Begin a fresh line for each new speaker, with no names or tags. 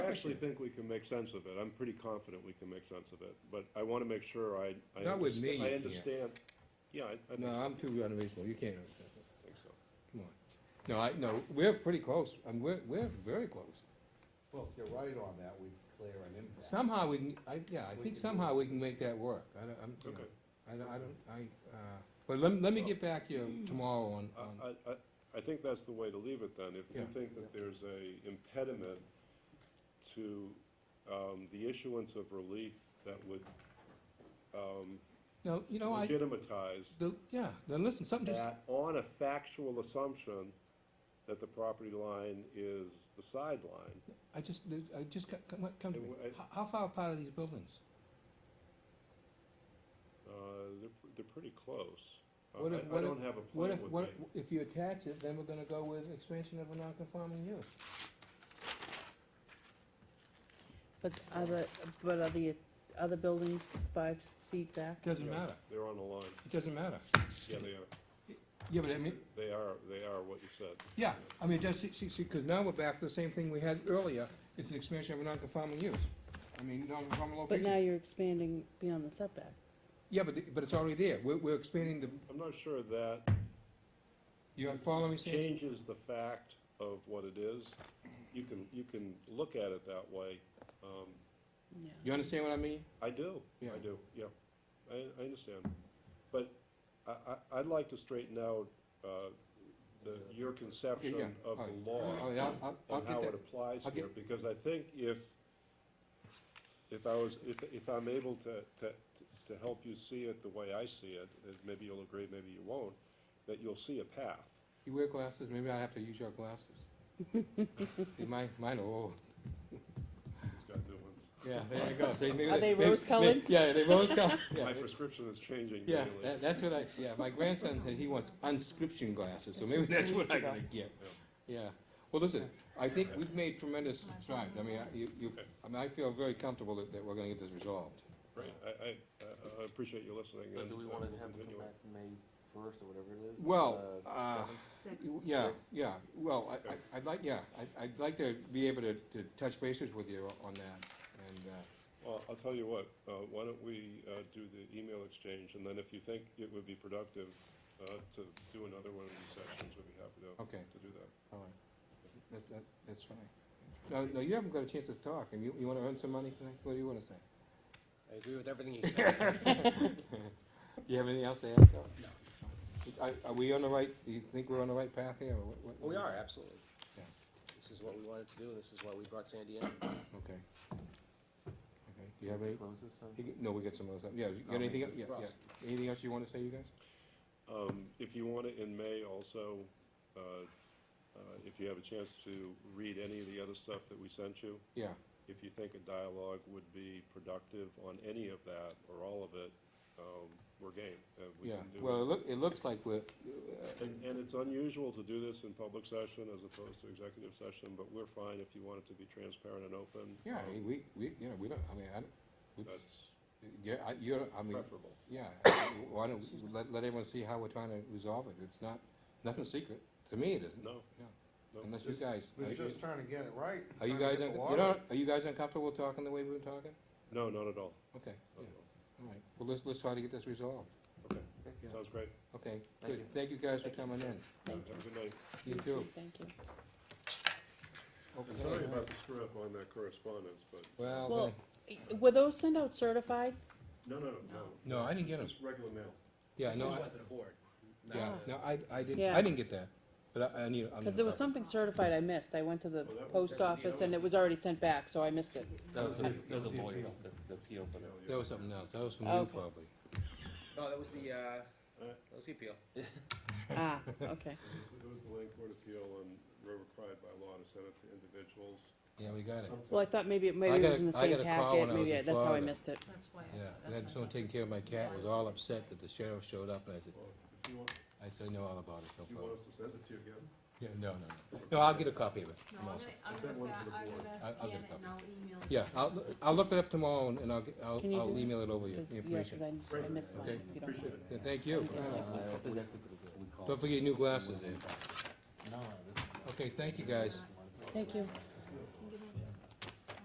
actually think we can make sense of it. I'm pretty confident we can make sense of it, but I wanna make sure I, I.
Not with
understa-
me, you
I
can't.
understand. Yeah, I, I think so.
No, I'm too unreasonable, you can't understand that.
I think so.
Come on. No, I, no, we're pretty close, and we're, we're very close.
Well, if you're right on that, we clear an impact.
Somehow we can, I, yeah, I
We
think
can
somehow we can make that work. I don't, I'm, you know,
Okay.
I don't, I don't, I, uh, but let, let me get back to you tomorrow on, on,
I, I- I, I think that's the way to leave it then. If you
Yeah.
think that there's a impediment to, um, the issuance of relief that would, um,
no, you know, I,
legitimatize
the, yeah, then listen, something just,
that on a factual assumption that the property line is the sideline.
I just, I just, got- come, come to
It
me.
w- it-
How, how far apart are these buildings?
Uh, they're, they're pretty close. Uh,
What
I,
if-
I
what if-
don't have a
What
plan
if,
with
what,
me.
if you attach it, then we're gonna go with expansion of a non-conforming use.
But are the, but are the other buildings five feet back?
Doesn't
Yeah,
matter,
They're on the line.
it doesn't matter.
Yeah, they are.
Yeah, but I mean,
They are, they are what you said.
yeah, I mean, just, see, see, see, cause now we're back to the same thing we had earlier, it's an expansion of a non-conforming use. I mean, non-conforming
But
location.
now you're expanding beyond the setback.
Yeah, but, but it's already there, we're, we're expanding the,
I'm not sure that
you're following me, Sandy?
changes the fact of what it is. You can, you can look at it that way. Um,
Yeah.
You understand what I mean?
I do,
Yeah.
I do, yeah. I, I understand. But I, I, I'd like to straighten out, uh, the, your
yeah,
conception of
alright.
the law.
All right, Oh, I'll, I'll, I'll
and how
get
it
that,
applies
I'll
here,
get-
because I think if, if I was, if, if I'm able to, to, to help you see it the way I see it, and maybe you'll agree, maybe you won't, that you'll see a path.
you wear glasses, maybe I have to use your glasses. See, mine, mine are old.
It's got new ones.
Yeah, there you go. See, maybe
Are they
maybe-
rose-colored?
may- Yeah, they rose colored. Yeah,
My
they-
prescription is changing
yeah,
daily.
that- that's what I, yeah, my grandson said he wants unscription glasses, so maybe that's what I'm gonna get. Yeah, well, listen, I think we've made tremendous strides. I mean, I- you, you, I mean, I feel very comfortable that, that we're gonna get this resolved.
Great, I, I, I- I appreciate you listening.
So
and,
do we
uh,
wanna
we'll
have it
continue
come
on.
back May first or whatever it is?
Well,
the
uh,
seventh?
Yeah,
Six.
yeah, well, I- I, I'd like, yeah, I, I'd like to be able to, to touch bases with you on that, and, uh,
Well, I'll tell you what, uh, why don't we, uh, do the email exchange, and then if you think it would be productive, uh, to do another one of these sessions, we'd be happy to,
okay,
to do that.
all right. That, that, that's fine. No, no, you haven't got a chance to talk, and you, you wanna earn some money tonight? What do you wanna say?
I agree with everything you said.
Do you have anything else to add, Phil? No. Are, are we on the right, do you think we're on the right path here, or what- what?
We are, absolutely.
Yeah.
This is what we wanted to do, and this is why we brought Sandy in.
Okay. Okay, do you have any,
Close this, uh,
you g- no, we got some other stuff, yeah, you got
I'll make
anything, else?
this
yeah, yeah.
fast.
Anything else you wanna say, you guys?
Um, if you want it in May also, uh, uh, if you have a chance to read any of the other stuff that we sent you,
Yeah,
if you think a dialogue would be productive on any of that or all of it, um, we're game. Uh, we
yeah,
can do
well, it
it.
look, it looks like we're, uh,
And, and it's unusual to do this in public session as opposed to executive session, but we're fine if you want it to be transparent and open.
Yeah, I
Um,
mean, we, we, you know, we don't, I mean, I don't, we-
That's
yeah, I, you're, I mean,
preferable.
yeah, I mean, why don't, we let, let everyone see how we're trying to resolve it, it's not, nothing secret, to me it isn't,
No,
Yeah.
no.
unless you
Just-
guys, are
We're
you-
just trying to get it right.
are you
trying to
guys,
get
un-
the
you
water.
know, are you guys uncomfortable talking the way we were talking?
No, not at all.
Okay,
Not at all.
yeah, all right, well, let's, let's try to get this resolved,
Okay,
yeah,
sounds great.
okay,
Thank
good, thank you guys for coming in,
Thank
Have a good night.
you too.
Thank you.
And
Okay.
Sorry about the screw up on that correspondence, but,
Well, uh,
Well- Were those sent out certified?
no, no, no, no.
no, I didn't get them,
Just regular mail.
yeah,
This
no,
is
I,
what's the board. not
yeah,
the-
no, I, I didn't,
Yeah.
I didn't get that, but I, I need, I'm.
Because there was something certified I missed. I went to the
Well, that was-
post office and it was already sent back, so I missed it.
That
That was,
was
that
the-
was a
that was the
lawyer,
appeal.
the, the appeal for that.
That was something else, that was from you
Okay.
probably,
No, that was the, uh, that was the appeal.
Ah, okay.
It was the land court appeal and we're required by law to send it to individuals.
yeah, we got it.
Well, I thought maybe, it
I
maybe it
got
was
a-
in the
I got
same
a call when I
packet.
was
Maybe,
in
I- that's how I
Florida.
missed it.
That's why.
Yeah, I had someone taking care of my cat, was all upset that the sheriff showed up, and I said,
Well, if you want,
I said, I know all about it, no
if you want
problem.
us to send it to you again,
Yeah, no, no, no, no, I'll get a copy of it.
No,
I'm
I'm
all
gonna,
set.
I'm
Send
gonna,
one to
fa-
the
I'm
board.
I- I'll get
gonna scan
a
it and I'll email it. to
Yeah,
you.
I'll, I'll look it up tomorrow, and and I'll, get- I'll,
Can you do
I'll
that?
email it over you,
'Cause-
the
Yeah, because
information.
I, I missed mine,
Okay.
if you don't mind.
Yeah, Thank you.
I think that's what we call-
Don't forget your new glasses, Dave.
No, no, this is-
Okay, thank you, guys.
Thank you.